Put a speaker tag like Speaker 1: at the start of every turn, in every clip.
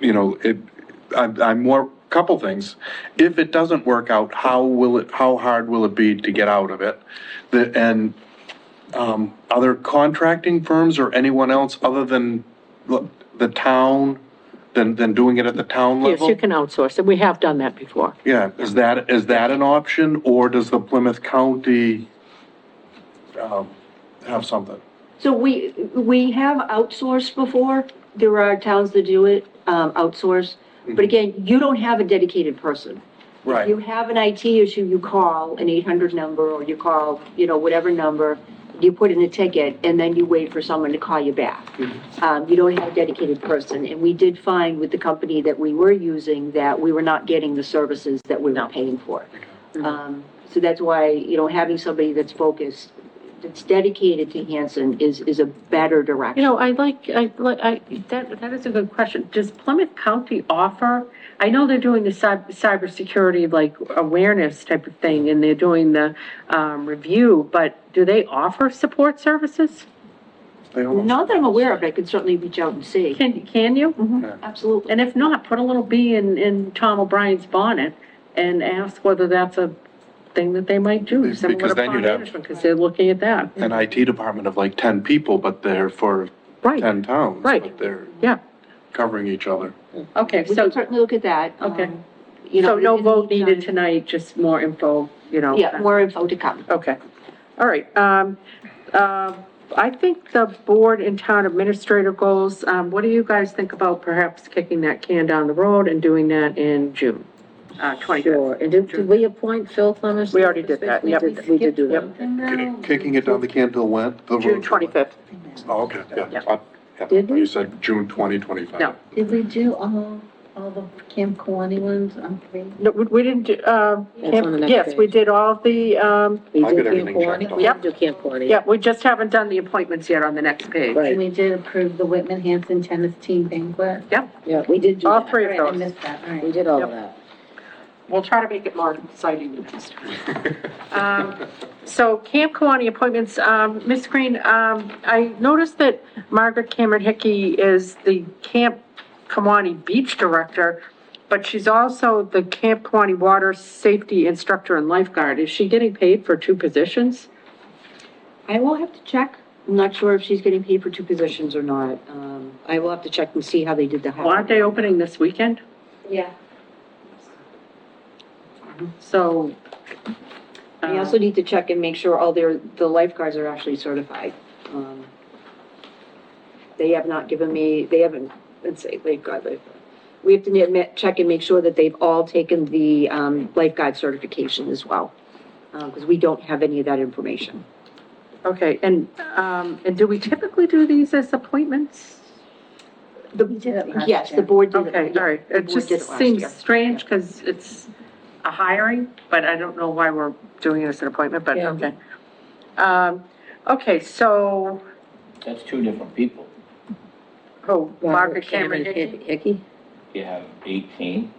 Speaker 1: you know, it, I'm, I'm more, couple things. If it doesn't work out, how will it, how hard will it be to get out of it? The, and, um, other contracting firms or anyone else other than l- the town, than, than doing it at the town
Speaker 2: Yes,
Speaker 1: level?
Speaker 2: you can outsource it. We have done that before.
Speaker 1: Yeah, is that, is that an option, or does the Plymouth County, um, have something?
Speaker 3: So we, we have outsourced before. There are towns that do it, um, outsource. But again, you don't have a dedicated person. If you
Speaker 1: Right,
Speaker 3: have an IT issue, you call an 800 number or you call, you know, whatever number, you put in a ticket and then you wait for someone to call you back. Um, you don't have a dedicated person. And we did find with the company that we were using that we were not getting the services that we were paying for. Um, so that's why, you know, having somebody that's focused, that's dedicated to Hanson is, is a better
Speaker 2: You
Speaker 3: direction.
Speaker 2: know, I like, I, like, I, that, that is a good question. Does Plymouth County offer, I know they're doing the cyber, cybersecurity, like, awareness type of thing, and they're doing the, um, review, but do they offer support services?
Speaker 1: they almost,
Speaker 3: Not that I'm aware of, but I could certainly reach out and see.
Speaker 2: Can, can you?
Speaker 3: Absolutely.
Speaker 2: And if not, put a little bee in, in Tom O'Brien's bonnet and ask whether that's a thing that they might do,
Speaker 1: Because
Speaker 2: similar to
Speaker 1: then
Speaker 2: pond
Speaker 1: you'd have-
Speaker 2: management, because they're looking at that.
Speaker 1: an IT department of like ten people, but they're for
Speaker 2: Right,
Speaker 1: ten towns,
Speaker 2: Right.
Speaker 1: but they're
Speaker 2: yeah,
Speaker 1: covering each other.
Speaker 2: okay,
Speaker 3: We
Speaker 2: so.
Speaker 3: can certainly look at that.
Speaker 2: Okay.
Speaker 3: um, You know.
Speaker 2: So no
Speaker 3: in the
Speaker 2: vote needed
Speaker 3: meantime-
Speaker 2: tonight, just more info, you know?
Speaker 3: Yeah, more info to come.
Speaker 2: Okay, all right. Um, uh, I think the board and town administrator goals, um, what do you guys think about perhaps kicking that can down the road and doing that in June? Uh,
Speaker 4: Sure,
Speaker 2: 25th?
Speaker 4: and did, did we appoint Phil Clemmons?
Speaker 2: We already did that,
Speaker 4: We
Speaker 2: yep.
Speaker 4: did, we did do
Speaker 2: Yep.
Speaker 4: that.
Speaker 1: Kidding- Kicking it down the can till when? The road till
Speaker 2: June
Speaker 1: when?
Speaker 2: 25th.
Speaker 1: Oh, okay, yeah.
Speaker 2: Yeah.
Speaker 1: I- yeah,
Speaker 4: Did we?
Speaker 1: You said June twenty twenty-five.
Speaker 2: No.
Speaker 4: Did we do all, all the Camp Kawani ones on three?
Speaker 2: No, we- we didn't, do, uh,
Speaker 4: That's on the next
Speaker 2: yes, we
Speaker 4: page.
Speaker 2: did all the, um,
Speaker 4: We
Speaker 1: I
Speaker 4: did
Speaker 1: got
Speaker 4: Camp
Speaker 1: everything checked
Speaker 4: Kawani?
Speaker 1: off.
Speaker 4: We didn't do Camp Kawani.
Speaker 2: yeah, we just haven't done the appointments yet on the next page.
Speaker 4: Right.
Speaker 5: We did approve the Whitman Hanson tennis team banquet.
Speaker 4: Yeah, we did do
Speaker 2: All
Speaker 4: that.
Speaker 2: three of
Speaker 5: All right, I
Speaker 2: those.
Speaker 5: missed that, all
Speaker 4: We
Speaker 5: right.
Speaker 4: did all
Speaker 2: Yep.
Speaker 4: of that.
Speaker 2: We'll try to make it more exciting the next time. Um, So Camp Kawani appointments, um, Ms. Green, um, I noticed that Margaret Cameron Hickey is the Camp Kawani Beach Director, but she's also the Camp Kawani Water Safety Instructor and Lifeguard. Is she getting paid for two positions?
Speaker 3: I will have to check. I'm not sure if she's getting paid for two positions or not. Um, I will have to check and see how they did the
Speaker 2: Well, Aren't
Speaker 3: hiring.
Speaker 2: they opening this weekend?
Speaker 5: Yeah.
Speaker 2: So.
Speaker 3: I
Speaker 2: uh,
Speaker 3: also need to check and make sure all their, the lifeguards are actually certified. Um, They have not given me, they haven't, let's say, lifeguard, lifeguard. We have to ne- ma- check and make sure that they've all taken the um, lifeguard certification as well, because we don't have any of that information.
Speaker 2: Okay, and, um, and do we typically do these as appointments?
Speaker 5: We did it last
Speaker 3: Yes, the
Speaker 5: year.
Speaker 3: board did it.
Speaker 2: Okay, all right,
Speaker 3: The
Speaker 2: it
Speaker 3: board
Speaker 2: just
Speaker 3: did it last
Speaker 2: seems
Speaker 3: year.
Speaker 2: strange, because it's a hiring, but I don't know why we're doing it as an appointment, but,
Speaker 4: Yeah.
Speaker 2: okay. Um, okay, so,
Speaker 6: That's two different people.
Speaker 2: who, Margaret Cameron Hickey?
Speaker 4: Hickey,
Speaker 6: You have 18,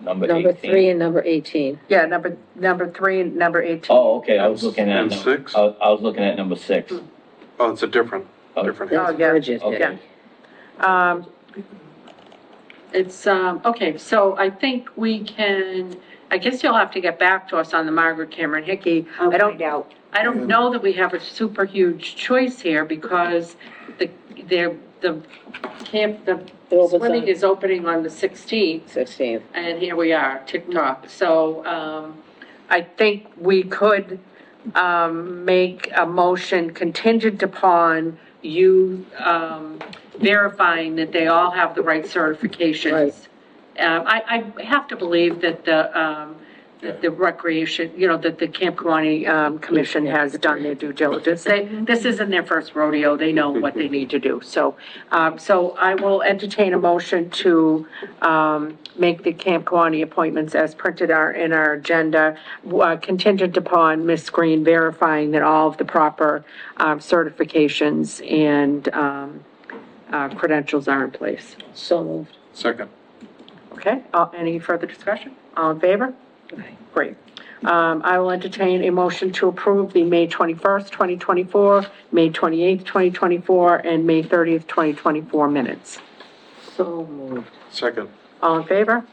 Speaker 6: number 18.
Speaker 4: number three and number eighteen.
Speaker 2: Yeah, number, number three and number eighteen.
Speaker 6: Oh, okay, I was looking at.
Speaker 1: And
Speaker 6: num-
Speaker 1: six?
Speaker 6: I I was looking at number six.
Speaker 1: Oh, it's a different, different.
Speaker 2: Oh, yeah.
Speaker 4: That's Bridget Hickey.
Speaker 6: Okay.
Speaker 2: Um, it's, um, okay, so I think we can, I guess you'll have to get back to us on the Margaret Cameron Hickey.
Speaker 3: I'll
Speaker 2: I don't
Speaker 3: find out.
Speaker 2: I don't know that we have a super huge choice here because the, the, the camp, the
Speaker 4: It opens
Speaker 2: swimming
Speaker 4: on-
Speaker 2: is opening on the 16th,
Speaker 4: Sixteenth.
Speaker 2: and here we are, tick tock. So, um, I think we could, um, make a motion contingent upon you, um, verifying that they all have the right
Speaker 4: Right.
Speaker 2: certifications. Um, I, I have to believe that the, um, that the recreation, you know, that the Camp Kawani, um, Commission has done their due diligence. They, this isn't their first rodeo, they know what they need to do. So, um, so I will entertain a motion to, um, make the Camp Kawani appointments as printed are in our agenda, uh, contingent upon Ms. Green verifying that all of the proper, um, certifications and, um, uh, credentials are in place.
Speaker 4: So moved.
Speaker 1: Second.
Speaker 2: Okay, uh, any further discussion? All in favor? Great. Um, I will entertain a motion to approve the May 21st, 2024, May 28th, 2024, and May 30th, 2024 minutes.
Speaker 5: So moved.
Speaker 1: Second.
Speaker 2: All in favor?